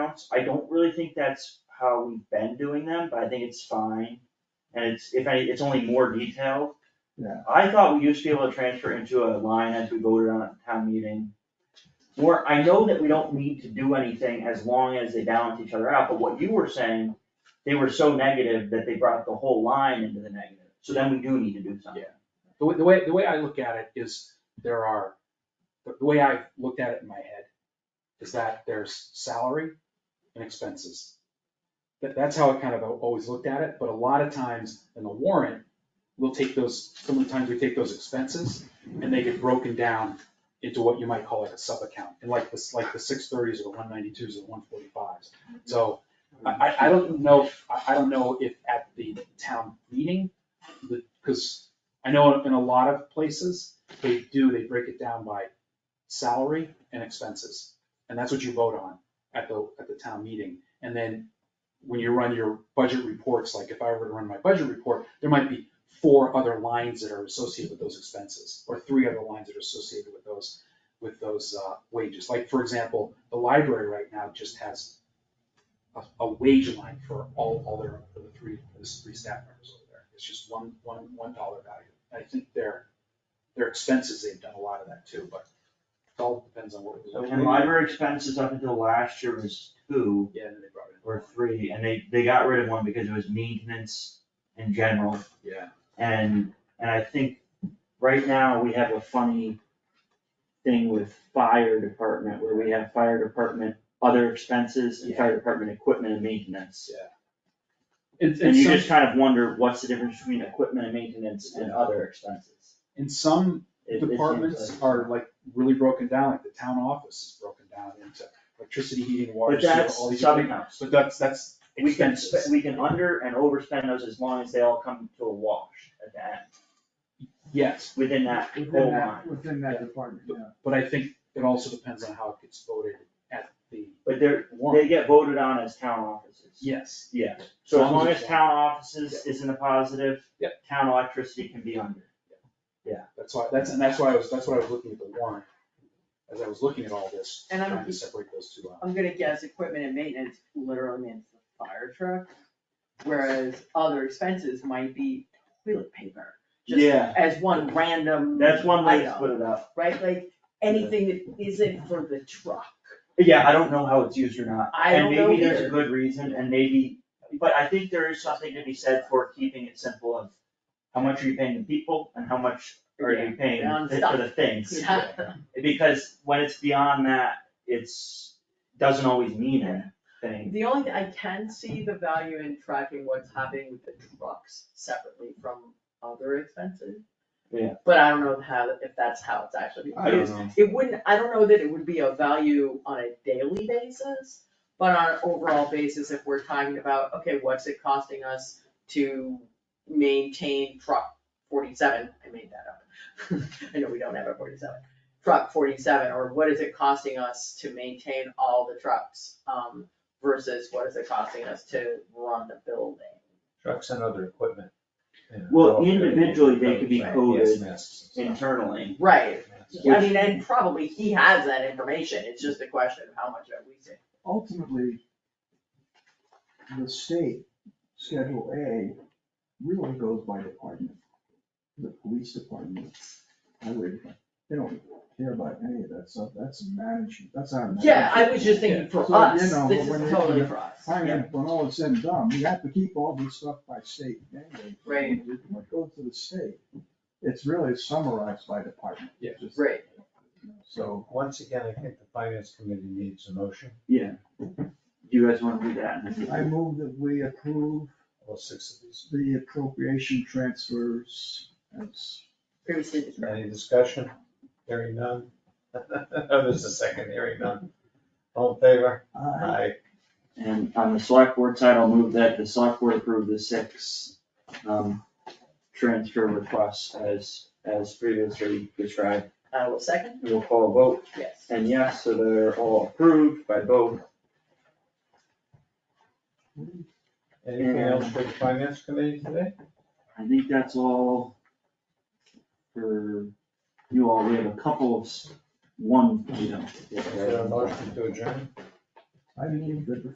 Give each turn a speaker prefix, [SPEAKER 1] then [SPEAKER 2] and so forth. [SPEAKER 1] accounts, I don't really think that's how we've been doing them, but I think it's fine. And it's, if any, it's only more detailed.
[SPEAKER 2] Yeah.
[SPEAKER 1] I thought we used to be able to transfer into a line as we voted on at town meeting. Or, I know that we don't need to do anything as long as they balance each other out, but what you were saying, they were so negative that they brought the whole line into the negative. So then we do need to do something.
[SPEAKER 3] The way, the way, the way I look at it is there are, the the way I looked at it in my head is that there's salary and expenses. That, that's how I kind of always looked at it, but a lot of times in the warrant, we'll take those, sometimes we take those expenses and they get broken down into what you might call like a sub-account, and like this, like the six thirties or the one ninety-twos or the one forty-fives. So I, I, I don't know, I, I don't know if at the town meeting, the, because I know in a lot of places, they do, they break it down by salary and expenses. And that's what you vote on at the, at the town meeting. And then when you run your budget reports, like if I were to run my budget report, there might be four other lines that are associated with those expenses, or three other lines that are associated with those, with those uh, wages. Like, for example, the library right now just has a, a wage line for all, all their, for the three, for the three staff members over there. It's just one, one, one dollar value. I think their, their expenses, they've done a lot of that too, but it all depends on what. we
[SPEAKER 1] So, And library expenses up until last year was two.
[SPEAKER 3] Yeah, and then they brought it
[SPEAKER 1] or three, and they, they got rid of one because it was maintenance in general,
[SPEAKER 3] in. Yeah.
[SPEAKER 1] and, and I think right now we have a funny thing with fire department, where we have fire department, other expenses, and fire department equipment and maintenance.
[SPEAKER 3] It's,
[SPEAKER 1] And
[SPEAKER 3] it's
[SPEAKER 1] you
[SPEAKER 3] some-
[SPEAKER 1] just kind of wonder, what's the difference between equipment and maintenance and other expenses?
[SPEAKER 3] and some
[SPEAKER 1] It- it seems
[SPEAKER 3] departments
[SPEAKER 1] like-
[SPEAKER 3] are like really broken down, like the town office is broken down into electricity, heating, water,
[SPEAKER 1] But
[SPEAKER 3] sewer,
[SPEAKER 1] that's
[SPEAKER 3] all these. other-
[SPEAKER 1] sub-accounts.
[SPEAKER 3] But that's, that's
[SPEAKER 1] We can, spe-
[SPEAKER 3] expenses.
[SPEAKER 1] we can under and overspend those as long as they all come to a wash at the end,
[SPEAKER 3] Yes,
[SPEAKER 1] within that
[SPEAKER 2] Within
[SPEAKER 1] whole line.
[SPEAKER 2] that, within that department, yeah.
[SPEAKER 3] but I think it also depends on how it gets voted at the
[SPEAKER 1] But they're, they
[SPEAKER 3] warrant.
[SPEAKER 1] get voted on as town offices.
[SPEAKER 3] Yes,
[SPEAKER 1] Yeah, so as long as town offices is in the positive.
[SPEAKER 3] Yeah.
[SPEAKER 1] Town electricity can be under.
[SPEAKER 3] that's why, that's, and that's why I was, that's why I was looking at the warrant, as I was looking at all this,
[SPEAKER 4] And I'm-
[SPEAKER 3] trying to separate those two out.
[SPEAKER 4] I'm gonna guess equipment and maintenance literally means the fire truck, whereas other expenses might be toilet paper. just
[SPEAKER 1] Yeah.
[SPEAKER 4] As one random
[SPEAKER 1] That's one way to
[SPEAKER 4] item,
[SPEAKER 1] split it up.
[SPEAKER 4] Right, like, anything that isn't for the truck,
[SPEAKER 1] Yeah, I don't know how it's used or not.
[SPEAKER 4] I don't know
[SPEAKER 1] And maybe there's a
[SPEAKER 4] either.
[SPEAKER 1] good reason and maybe, but I think there is something to be said for keeping it simple of how much are you paying the people and how much are you paying
[SPEAKER 4] Yeah, on
[SPEAKER 1] for
[SPEAKER 4] stuff.
[SPEAKER 1] the things.
[SPEAKER 4] Yeah.
[SPEAKER 1] Because when it's beyond that, it's, doesn't always mean anything.
[SPEAKER 4] The only, thing I can see the value in tracking what's happening with the trucks separately from other expenses.
[SPEAKER 1] Yeah.
[SPEAKER 4] But I don't know how, if that's how it's actually.
[SPEAKER 1] I
[SPEAKER 4] used.
[SPEAKER 1] don't know.
[SPEAKER 4] It wouldn't, I don't know that it would be a value on a daily basis, but on an overall basis, if we're talking about, okay, what's it costing us to maintain truck forty-seven, I made that up. I know we don't have a forty-seven, truck forty-seven, or what is it costing us to maintain all the trucks? Um, versus what is it costing us to run the building?
[SPEAKER 5] Trucks and other equipment. Yeah.
[SPEAKER 1] Well, individually, they could be
[SPEAKER 5] Yes,
[SPEAKER 1] coded
[SPEAKER 5] masks and stuff.
[SPEAKER 1] Internally.
[SPEAKER 4] Right,
[SPEAKER 1] Yeah.
[SPEAKER 4] I mean, and probably he has that information, it's just a question of how much are we saving.
[SPEAKER 2] ultimately, the state, Schedule A, really goes by department. The police department, highway department, they don't care about any of that stuff, that's management, that's our management.
[SPEAKER 4] Yeah, I was just thinking for
[SPEAKER 2] So, you
[SPEAKER 4] us,
[SPEAKER 2] know,
[SPEAKER 4] this
[SPEAKER 2] when
[SPEAKER 4] is
[SPEAKER 2] they-
[SPEAKER 4] totally for us.
[SPEAKER 2] I mean, when all is said and done, we have to keep all this stuff by state anyway.
[SPEAKER 4] Right.
[SPEAKER 2] What goes to the state, it's really summarized by department.
[SPEAKER 3] Yeah.
[SPEAKER 2] Just-
[SPEAKER 4] Right.
[SPEAKER 2] So,
[SPEAKER 5] Once again, I think the finance committee needs a motion
[SPEAKER 1] Yeah. Do you guys wanna do that?
[SPEAKER 2] I move that we approve
[SPEAKER 5] or six of these.
[SPEAKER 2] the appropriation transfers as
[SPEAKER 4] Previously described.
[SPEAKER 5] Any discussion? Hearing none? There's a second hearing none. All in favor?
[SPEAKER 2] Aye.
[SPEAKER 5] Aye.
[SPEAKER 1] And on the select board side, I'll move that the select board approve the six, um, transfer requests as, as previously described.
[SPEAKER 4] I will uh, second,
[SPEAKER 1] And We'll call a vote,
[SPEAKER 4] yes.
[SPEAKER 1] and yes, so they're all approved by both.
[SPEAKER 5] Anything else for the finance committee today?
[SPEAKER 1] I think that's all for you all. We have a couple of, s- one, you know.
[SPEAKER 5] Is there a motion to adjourn?
[SPEAKER 2] I I mean, good for